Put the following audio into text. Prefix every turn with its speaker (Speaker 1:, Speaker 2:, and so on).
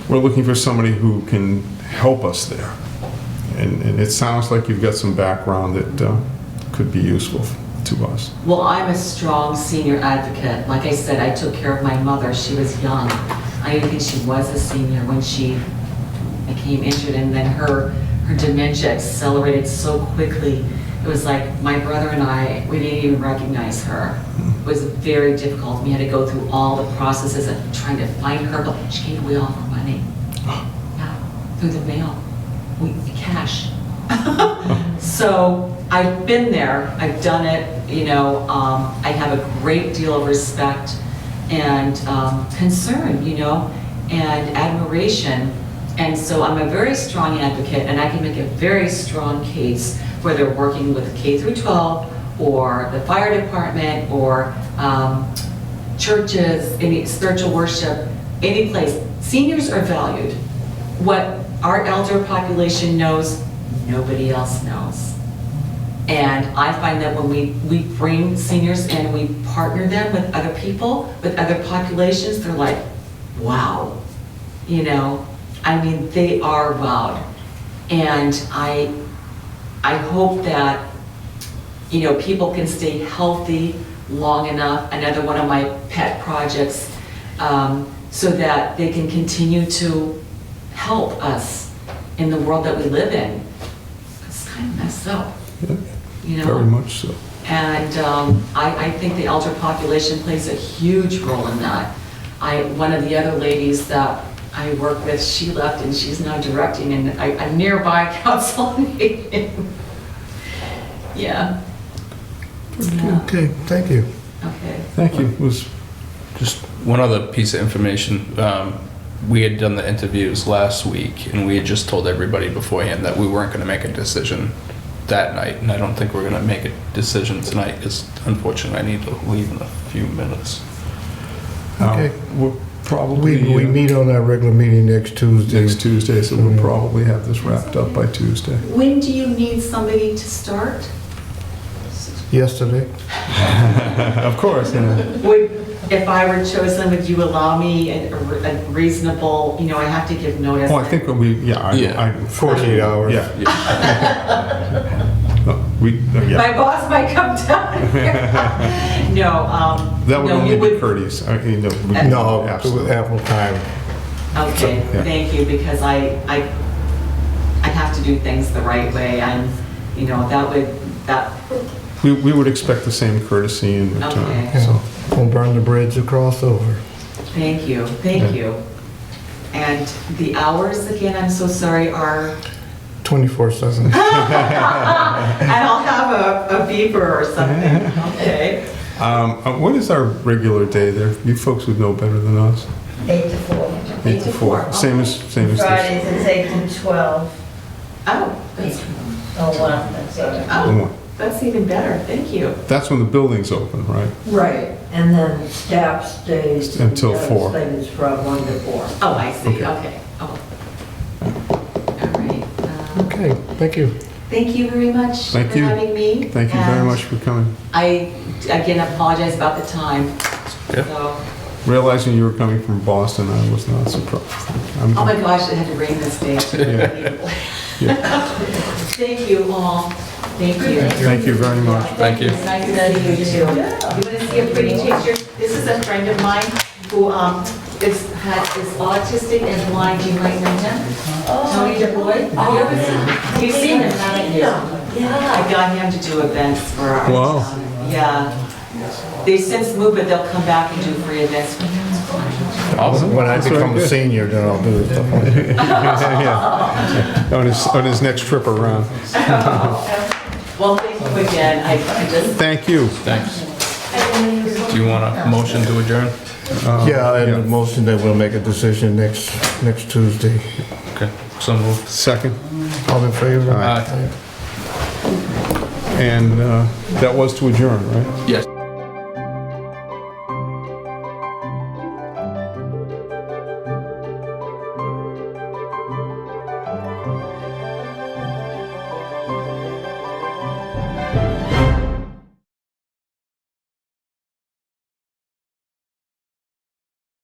Speaker 1: We're looking for somebody who can help us there. And, and it sounds like you've got some background that uh, could be useful to us.
Speaker 2: Well, I'm a strong senior advocate. Like I said, I took care of my mother. She was young. I even think she was a senior when she became injured, and then her, her dementia accelerated so quickly. It was like my brother and I, we didn't even recognize her. It was very difficult. We had to go through all the processes of trying to find her, but she gave away all her money. Yeah, through the mail, we, cash. So I've been there, I've done it, you know, um, I have a great deal of respect and, um, concern, you know, and admiration. And so I'm a very strong advocate and I can make a very strong case, whether working with K through 12 or the fire department or, um, churches, any spiritual worship, any place. Seniors are valued. What our elder population knows, nobody else knows. And I find that when we, we bring seniors in, we partner them with other people, with other populations, they're like, wow. You know, I mean, they are wowed. And I, I hope that you know, people can stay healthy long enough, another one of my pet projects, um, so that they can continue to help us in the world that we live in. It's kind of messed up,
Speaker 1: Yeah,
Speaker 2: you know?
Speaker 1: Very much so.
Speaker 2: And um, I, I think the elder population plays a huge role in that. I, one of the other ladies that I work with, she left and she's now directing in a a nearby council on aging. Yeah. Yeah,
Speaker 3: Okay, thank you.
Speaker 2: okay.
Speaker 1: Thank you. It was
Speaker 4: Just one other piece of information. Um, we had done the interviews last week, and we had just told everybody beforehand that we weren't going to make a decision that night, and I don't think we're going to make a decision tonight because unfortunately I need to leave in a few minutes.
Speaker 1: uh,
Speaker 3: Okay.
Speaker 1: We'll probably.
Speaker 3: We, we
Speaker 1: uh,
Speaker 3: meet on our regular meeting next Tuesday. Mm-hmm.
Speaker 1: Next Tuesday, so we'll probably have this wrapped up by Tuesday.
Speaker 2: When do you need somebody to start?
Speaker 3: Yesterday?
Speaker 1: uh, Of course, yeah.
Speaker 2: Would, if I were chosen, would you allow me a a reasonable, you know, I have to give notice?
Speaker 1: Well, Oh, I think when we, yeah, I,
Speaker 4: Yeah.
Speaker 1: I.
Speaker 3: 48 hours.
Speaker 1: Yeah. No, We, no, yeah,
Speaker 2: My boss might come down here. No, um.
Speaker 1: that would
Speaker 2: no, you
Speaker 1: only be courteous. I mean, no, we-
Speaker 3: No,
Speaker 1: absolutely.
Speaker 3: ample time.
Speaker 2: Okay,
Speaker 1: Yeah.
Speaker 2: thank you, because I, I, I have to do things the right way, I'm, you know, that would, that,
Speaker 1: We, we would expect the same courtesy in return,
Speaker 2: Okay.
Speaker 1: so.
Speaker 3: Yeah, Won't burn the bridge across over.
Speaker 2: thank you, thank you. And the hours, again, I'm so sorry, are,
Speaker 3: 24/7.
Speaker 2: and I'll have a, a beeper or something, okay?
Speaker 1: Um, uh, what is our regular day there? You folks would know better than us.
Speaker 5: Eight to four.
Speaker 1: Eight to four. Same as, same as this.
Speaker 5: Fridays it's eight to twelve.
Speaker 2: Oh, that's,
Speaker 5: Oh, wow, that's all
Speaker 2: oh, that's even better, thank you.
Speaker 1: That's when the building's open, right?
Speaker 5: right. And then staff stays.
Speaker 1: Until four.
Speaker 5: Things from one to four.
Speaker 2: Oh, I see,
Speaker 1: Okay.
Speaker 2: okay, oh. All right, um,
Speaker 3: Okay, thank you.
Speaker 2: thank you very much for
Speaker 1: Thank you.
Speaker 2: having me.
Speaker 1: Thank you very
Speaker 2: and
Speaker 1: much for coming.
Speaker 2: I, again, apologize about the time,
Speaker 4: Yeah.
Speaker 2: so.
Speaker 1: Realizing you were coming from Boston, I was not surprised. I'm-
Speaker 2: Oh my gosh, it had to rain this day. Thank you all. Thank you.
Speaker 1: Thank you very much.
Speaker 4: Thank you.
Speaker 2: Nice to meet you too. You want to see a pretty picture? This is a friend of mine who um, is, had- is autistic and blind. You might know him. Tony DeBoy. Oh, you ever seen- You've seen him, haven't you? Yeah, I got him to do events for our
Speaker 1: Wow.
Speaker 2: town. Yeah. They since moved, but they'll come back and do free events.
Speaker 4: Awesome.
Speaker 3: When I
Speaker 1: very
Speaker 3: become a
Speaker 1: good.
Speaker 3: senior, then I'll do it.
Speaker 1: Yeah. On his, on his next trip around.
Speaker 2: Well, thank you again. I I just
Speaker 1: Thank you.
Speaker 4: Thanks. Do you want a motion to adjourn?
Speaker 3: Yeah, and
Speaker 1: Uh, yeah.
Speaker 3: the motion that we'll make a decision next, next Tuesday.
Speaker 4: Okay. So moved.
Speaker 1: Second.
Speaker 3: All in favor?
Speaker 4: Aye.
Speaker 1: And uh, that was to adjourn, right?
Speaker 4: Yes.